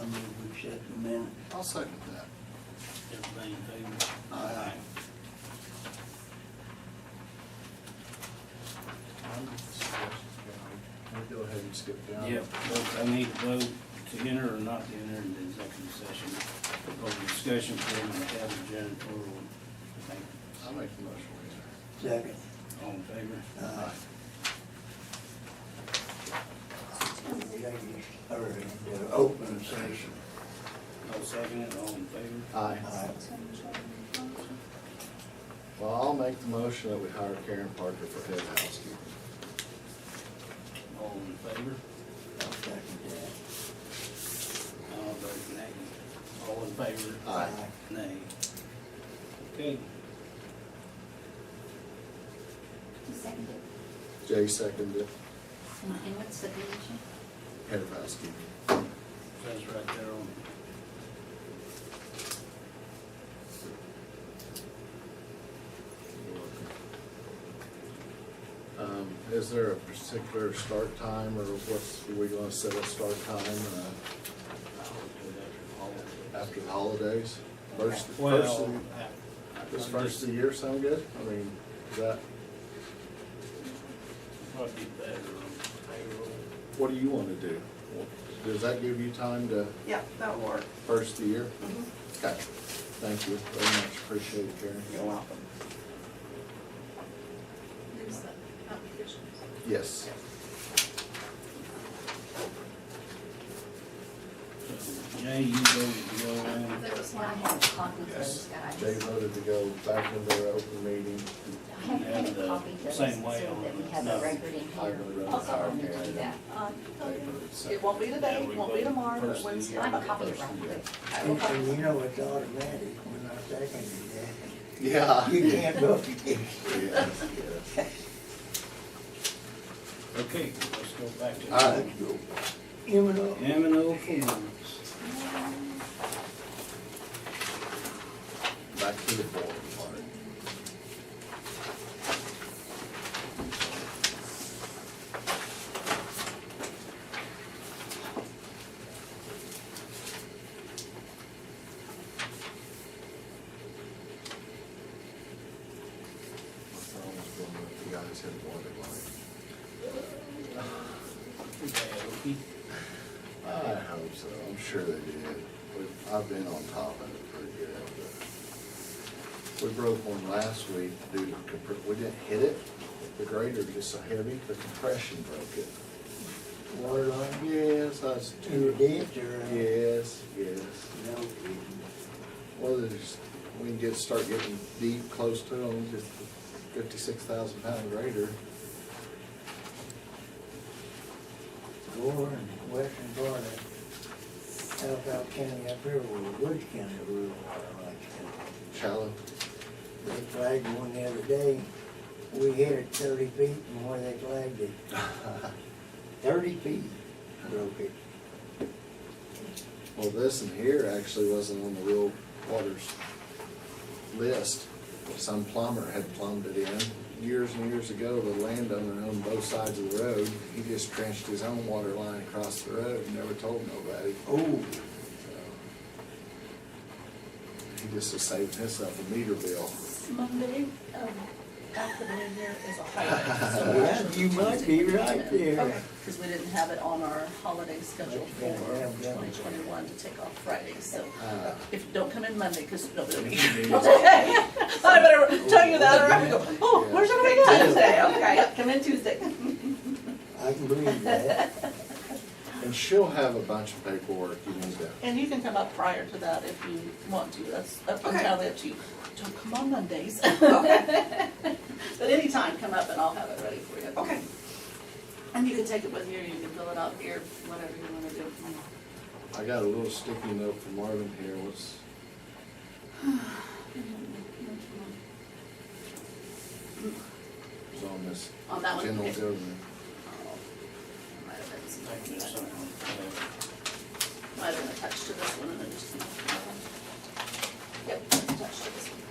Um, it in a minute. I'll second that. Everybody in favor? Aye. Can we go ahead and skip down? Yeah, vote, I need to vote to enter or not to enter into executive session over discussion for the cabin janitorial. Thank you. I'll make the motion. we Second. All in favor? uh, enter. Aye. Executive, or uh, open session. Uh, No second, it, all in favor? Aye. Aye. Well, I'll make the motion that we hire Karen Parker for head housekeeper. All in favor? I'll second I'll vote nay. All in favor? that. Aye. Nay. Okay, Second. Jay seconded it, And and what's the condition? head of housekeeping. says right there on. You're welcome. Um, is there a particular start time or what's, are we gonna set a start time, uh, after the holidays? First, first, Well, of- I- does I'm first just- of the year sound good? I mean, is that, Probably better on payroll. what do you wanna do? Does that give you time to Yeah, that'll work. first of the year? Mhm. Okay, thank you very much, appreciate it, Karen. You're welcome. There's the conditions. Yes. So, Jay, you voted to go in. There was one I had a copy of those Yes. guys. They voted to go back into their open meeting. I had a copy of those so uh, Same way on that we the- have no. a record in I here. really don't Also, I'm care. gonna do that. They voted second. It won't be today, it won't be tomorrow, but First of the Wednesday. year. I'm a copy of First of the year. record. I will And- copy. And you know it's automatic when I second it. Yeah. You can't vote against. Yes, yes. Okay, let's go back to. All right. M and O. M and O forms. Back to the board part. My phone was blowing up. You guys had wanted like, Okay, I hope so, I'm sure they did. We've- I've been on top of it pretty good. but We broke one last week due to, compr- we didn't hit it, the grader was just so heavy, the compression broke it. Water line. Yes, I was In the too. ditch or? uh, Yes, yes. No, it- Well, there's, we can get, start getting deep, close to them, just fifty-six thousand pound grader. Gore and western part of Alphaba County up here, or Woods County rural water rights county. Shallow, They flagged one the other day, we hit it thirty feet from where they flagged it. Thirty feet broke it. Well, this in here actually wasn't on the real waters list. Some plumber had plumbed it in years and years ago. The landowner owned both sides of the road. He just trenched his own water line across the road and never told nobody. Oh, So, He just was saving himself a meter bill. Monday, um, after the new year is a yeah, you might be right there. Okay, because we didn't have it on our holiday schedule for Yeah, yeah, yeah. twenty twenty-one to take off Friday, so Ah. if, don't come in Monday, because nobody will be here. Yes, Okay, I better tell you that or I'm gonna go, oh, Yeah. where's everybody at Tuesday? Okay, come in Tuesday. I can believe that. And she'll have a bunch of paperwork you need to. And you can come up prior to that if you want to, that's up Okay. entirely up to you. Don't come on Mondays, Okay, but anytime, come up and I'll have it ready for you. okay. And you can take it with you, or you can fill it out here, whatever you want to do. Mm-hmm. I got a little sticky note from Marvin here. What's, Mm-hmm. was on this On that one? general Okay. government. Oh, Might have been I think something there's that- something on that. Might have been attached to this one and then just. Yep, attached to this one.